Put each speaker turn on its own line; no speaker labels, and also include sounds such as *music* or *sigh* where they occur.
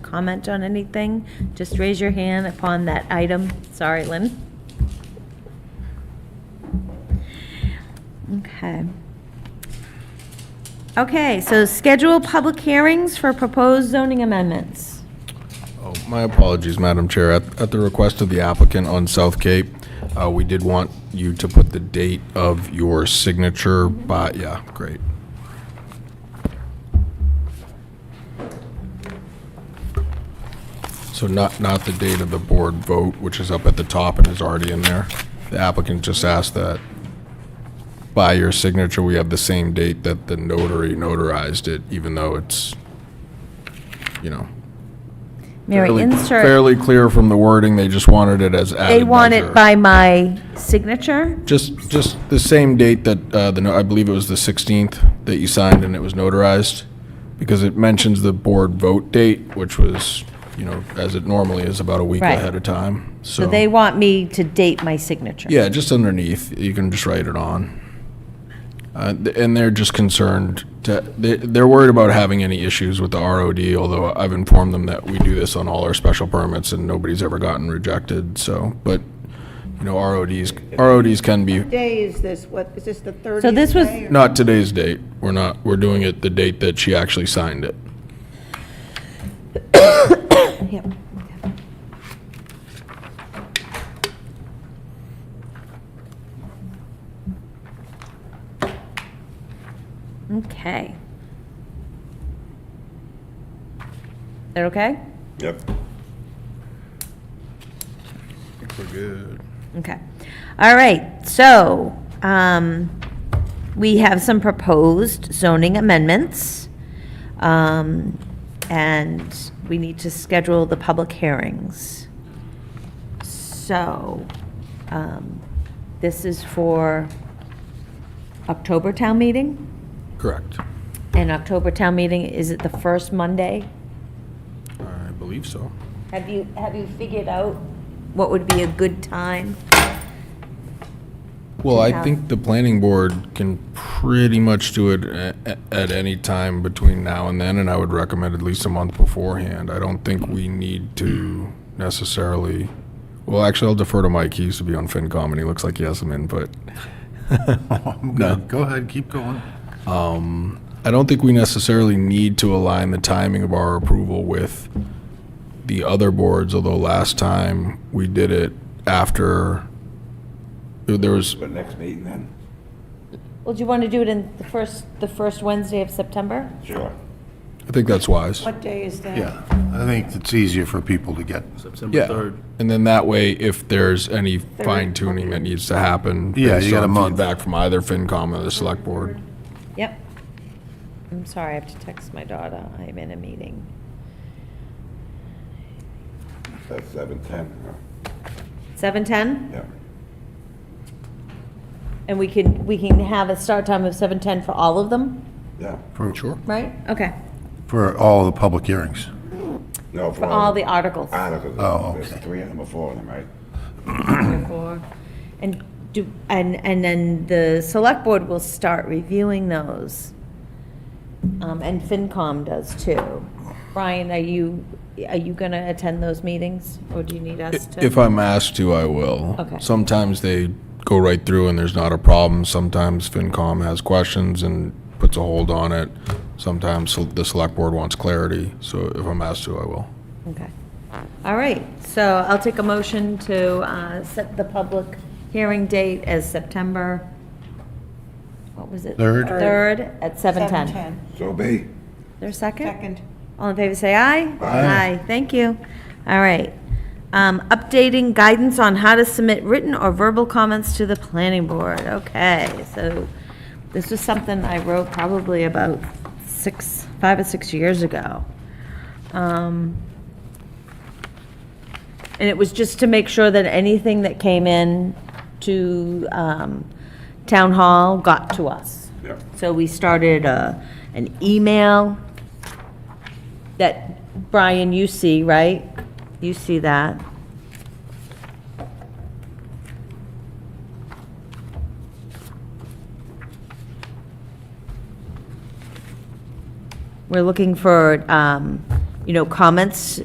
comment on anything, just raise your hand upon that item. Sorry, Lynn. Okay. Okay, so schedule public hearings for proposed zoning amendments.
Oh, My apologies, Madam Chair. At at the request of the applicant on South Cape, uh, we did want you to put the date of your signature by, yeah, great. So not, not the date of the board vote, which is up at the top and is already in there. The applicant just asked that by your signature, we have the same date that the notary notarized it, even though it's, you know,
Mary,
fairly-
insert,
Fairly clear from the wording, they just wanted it as added
they want it
measure.
by my signature?
Just, just the same date that, uh, the, no- I believe it was the 16th that you signed and it was notarized, because it mentions the board vote date, which was, you know, as it normally is, about a week
Right.
ahead of time, so.
So they want me to date my signature?
Yeah, just underneath, you can just write it on. Uh, th- And they're just concerned, to- they- they're worried about having any issues with the ROD, although I've informed them that we do this on all our special permits and nobody's ever gotten rejected, so, but, you know, RODs, RODs can be,
day is this, what, is this the 30th day?
So this was-
or-
not today's date, we're not, we're doing it the date that she actually signed it.
Yep. Okay. That okay?
Yep.
We're good.
Okay. All right, so, um, we have some proposed zoning amendments. Um, and we need to schedule the public hearings. So, um, this is for October town meeting?
Correct.
And October town meeting, is it the first Monday?
I believe so.
Have you, have you figured out what would be a good time?
Well, I
have-
think the planning board can pretty much do it a- a- at any time between now and then, and I would recommend at least a month beforehand. I don't think we need to necessarily, well, actually, I'll defer to Mike. He used to be on FinCom, and he looks like he has some
*laughs*
input. No. Um,
Go ahead, keep going.
I don't think we necessarily need to align the timing of our approval with the other boards, although last time we did it after, there- there was,
But next meeting then?
Well, do you want to do it in the first, the first Wednesday of September?
Sure.
I think that's wise.
What day is that?
Yeah, I think it's easier for people to get,
September
Yeah,
3rd.
and then that way, if there's any fine tuning that needs to happen.
Yeah, you
based
got a
on
month.
Feedback from either FinCom or the select board.
Yep. I'm sorry, I have to text my daughter. I'm in a meeting.
that's seven, ten,
7:10?
yeah.
And we can, we can have a start time of 7:10 for all of them,
Yeah,
For sure.
right? Okay.
For all the public hearings.
no,
For all the articles.
Articles,
Oh,
there's
okay.
three of them or four of them, right?
And do, and, and then the select board will start reviewing those. Um, And FinCom does too. Brian, are you, are you going to attend those meetings, or do you need us to?
If I'm asked to, I will.
Okay.
Sometimes they go right through and there's not a problem. Sometimes FinCom has questions and puts a hold on it. Sometimes sel- the select board wants clarity, so if I'm asked to, I will.
Okay. All right, so I'll take a motion to uh, set the public hearing date as September, what was it?
Third.
3rd at 7:10. Is
7:10,
So be.
there a second?
second.
All in favor, say aye.
Aye.
thank you. All right. Um, Updating guidance on how to submit written or verbal comments to the planning board. Okay, so this was something I wrote probably about six, five or six years ago. Um, And it was just to make sure that anything that came in to um, town hall got to us.
Yeah.
So we started uh, an email that, Brian, you see, right? You see that? We're looking for, um, you know, comments